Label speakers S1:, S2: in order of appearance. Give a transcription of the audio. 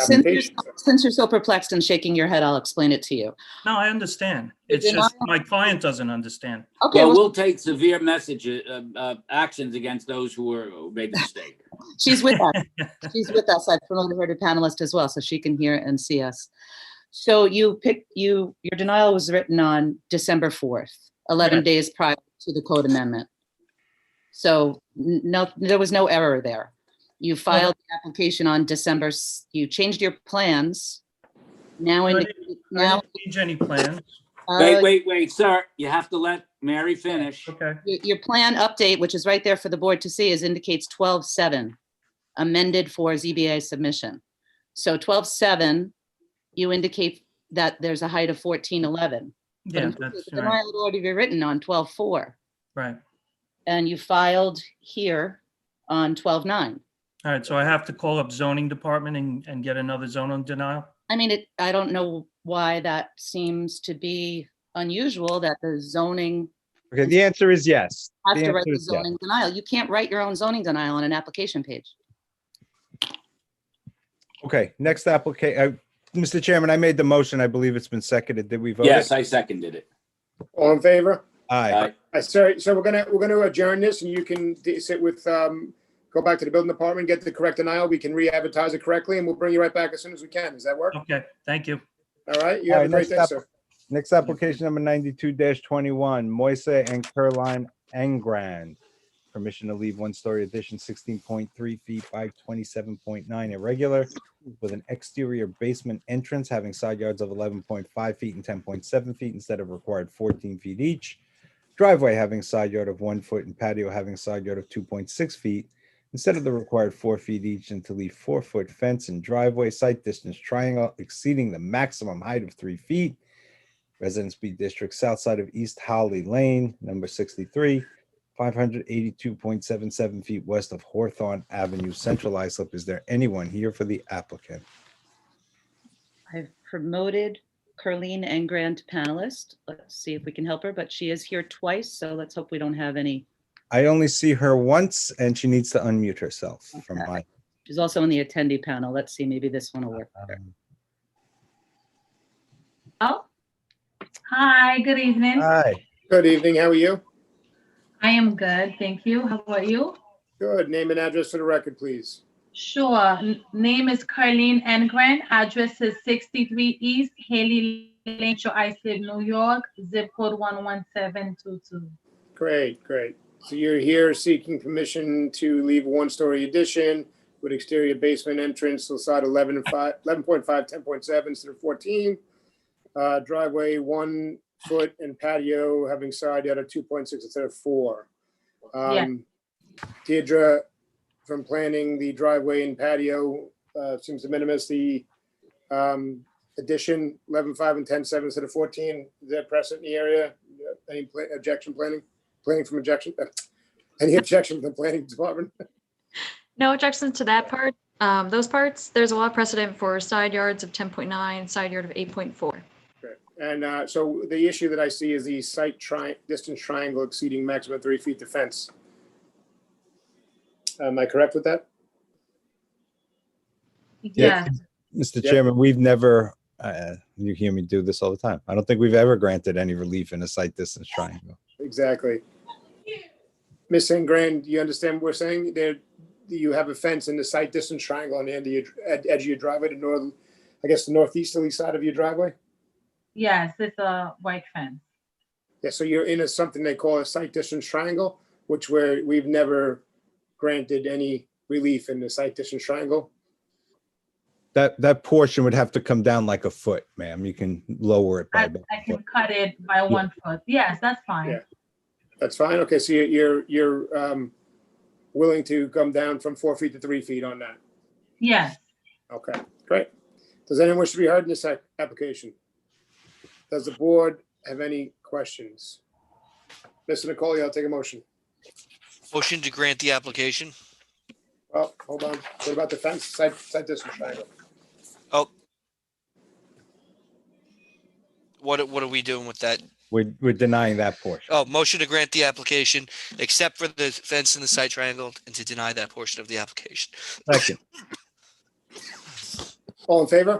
S1: Since you're,
S2: application.
S1: since you're so perplexed and shaking your head, I'll explain it to you.
S3: No, I understand. It's
S1: did
S3: just my client doesn't understand.
S1: Okay,
S4: Well,
S1: well,
S4: we'll take severe messages, uh, uh, actions against those who were, who made the mistake.
S1: she's with us. She's with us. I've promoted her to panelist as well, so she can hear and see us. So you picked, you, your denial was written on December 4th, 11
S3: Yes.
S1: days prior to the code amendment. So n- no, there was no error there. You filed the application on December, s- you changed your plans. Now,
S3: I
S1: indi-
S3: didn't I
S1: now,
S3: didn't change any plans.
S1: uh,
S4: Wait, wait, wait, sir, you have to let Mary finish.
S3: Okay,
S1: Your, your plan update, which is right there for the board to see, is indicates twelve seven amended for ZBA submission. So twelve seven, you indicate that there's a height of fourteen eleven.
S3: yeah, that's
S1: The
S3: right,
S1: denial had already been written on twelve four,
S3: right.
S1: and you filed here on twelve nine.
S3: All right, so I have to call up zoning department and, and get another zoning denial?
S1: I mean, it, I don't know why that seems to be unusual that the zoning
S5: Okay, the answer is yes.
S1: has
S5: The
S1: to
S5: answer
S1: write the
S5: is yes.
S1: zoning denial. You can't write your own zoning denial on an application page.
S5: Okay, next application, Mr. Chairman, I made the motion. I believe it's been seconded. Did we vote? it?
S4: Yes, I seconded it.
S2: All in favor?
S5: Aye.
S4: Aye.
S2: Uh, So, so we're gonna, we're gonna adjourn this and you can d- sit with, um, go back to the building department, get the correct denial. We can re-advertise it correctly and we'll bring you right back as soon as we can. Does that work?
S3: Okay, thank you.
S2: All right? You
S5: All
S2: have a
S5: right,
S2: great
S5: next
S2: day,
S5: up-
S2: sir.
S5: Next application number ninety-two twenty-one, Moise and Caroline Engrand. Permission to leave one-story addition sixteen point three feet by twenty-seven point nine irregular with an exterior basement entrance having side yards of eleven point five feet and ten point seven feet instead of required fourteen feet each. Driveway having side yard of one foot and patio having side yard of two point six feet instead of the required four feet each and to leave four-foot fence and driveway site distance triangle exceeding the maximum height of three feet Residence B District, south side of East Holly Lane, number 63, 582.77 feet west of Hawthorne Avenue, Central Islip. Is there anyone here for the applicant?
S1: I've promoted Carleen Engran to panelist. Let's see if we can help her, but she is here twice, so let's hope we don't have any.
S5: I only see her once and she needs to unmute herself from my.
S1: She's also in the attendee panel. Let's see, maybe this one will work better.
S6: Oh, hi, good evening.
S5: Hi,
S2: Good evening. How are you?
S6: I am good, thank you. How about you?
S2: Good. Name and address for the record, please.
S6: Sure, N- name is Carleen Engren, address is 63 East Haley Lane, Shore Islip, New York, zip code 11722.
S2: Great, great. So you're here seeking permission to leave a one-story addition with exterior basement entrance, so side 11 and 5, 11.5, 10.7 instead of 14. Uh, Driveway, one foot and patio having side yard of 2.6 instead of 4.
S6: Yeah.
S2: Um, Deirdre, from planning the driveway and patio, uh, seems to minimize the um, addition, 11.5 and 10.7 instead of 14. Is that present in the area? Any pla- objection planning? planning from objection, uh, any objection from the planning department?
S7: No objections to that part. Um, those parts, there's a lot of precedent for side yards of ten point nine, side yard of eight point four.
S2: And uh, so the issue that I see is the site tri, distance triangle exceeding maximum three feet to fence. Am I correct with that?
S6: Yeah,
S5: Mr.
S2: Yeah.
S5: Chairman, we've never, uh, you hear me do this all the time. I don't think we've ever granted any relief in a site distance triangle.
S2: Exactly. Ms. Ingrand, you understand what we're saying? There, you have a fence in the site distance triangle on the end of your, ed- edge of your driveway, the northern, I guess, the northeasterly side of your driveway?
S6: yes, it's a white fence.
S2: Yeah, so you're in a, something they call a site distance triangle, which where we've never granted any relief in the site distance triangle.
S5: That, that portion would have to come down like a foot, ma'am. You can lower it by.
S6: I
S5: about a
S6: I
S5: foot.
S6: can cut it by one foot. Yes, that's
S2: Yeah.
S6: fine.
S2: That's fine. Okay, so you're, you're, you're um, willing to come down from four feet to three feet on that.
S6: Yes,
S2: Okay, great. Does anyone wish to be heard in this ac- application? Does the board have any questions? Mr. Nicole, I'll take a motion.
S8: Motion to grant the application.
S2: Oh, hold on. What about the fence, site, site distance triangle?
S8: What, what are we doing with that?
S5: We're, we're denying that portion.
S8: Oh, motion to grant the application, except for the fence and the side triangle, and to deny that portion of the application.
S5: Second.
S2: All in favor?